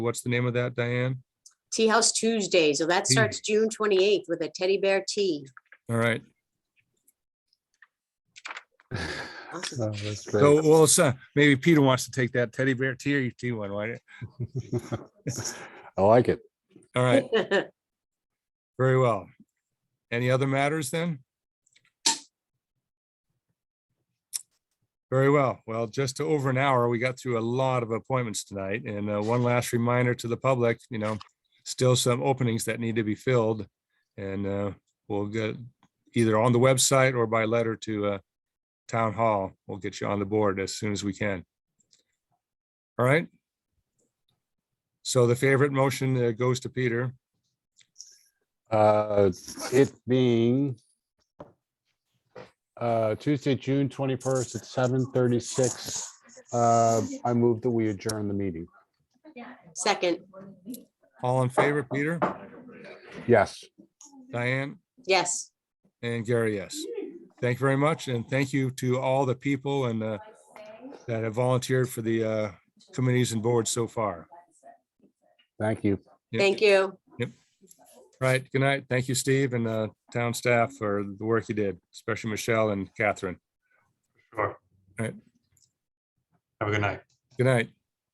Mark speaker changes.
Speaker 1: what's the name of that, Diane?
Speaker 2: Tea House Tuesday. So that
Speaker 1: Tea.
Speaker 2: starts June twenty-eighth with a teddy bear tea.
Speaker 1: All right,
Speaker 2: Awesome.
Speaker 3: Oh, That's
Speaker 1: so,
Speaker 3: great.
Speaker 1: well, it's, uh, maybe Peter wants to take that teddy bear tier T one, right?
Speaker 3: I like it.
Speaker 1: All right, very well. Any other matters then? Very well. Well, just over an hour, we got through a lot of appointments tonight. And uh, one last reminder to the public, you know, still some openings that need to be filled. And uh, we'll get either on the website or by letter to uh, Town Hall. We'll get you on the board as soon as we can. All right. So the favorite motion uh, goes to Peter.
Speaker 3: Uh, it being uh, Tuesday, June twenty-first at seven thirty-six. Uh, I move that we adjourn the meeting.
Speaker 2: Second,
Speaker 1: All in favor, Peter,
Speaker 3: Yes.
Speaker 1: Diane,
Speaker 2: yes.
Speaker 1: and Gary, yes. Thank you very much, and thank you to all the people and uh, that have volunteered for the uh, committees and boards so far.
Speaker 3: Thank you.
Speaker 1: Yep.
Speaker 2: Thank you.
Speaker 1: Right, good night. Thank you, Steve, and uh, town staff for the work you did, especially Michelle and Catherine.
Speaker 4: Sure.
Speaker 1: Right.
Speaker 4: Have a good night.
Speaker 1: Good night.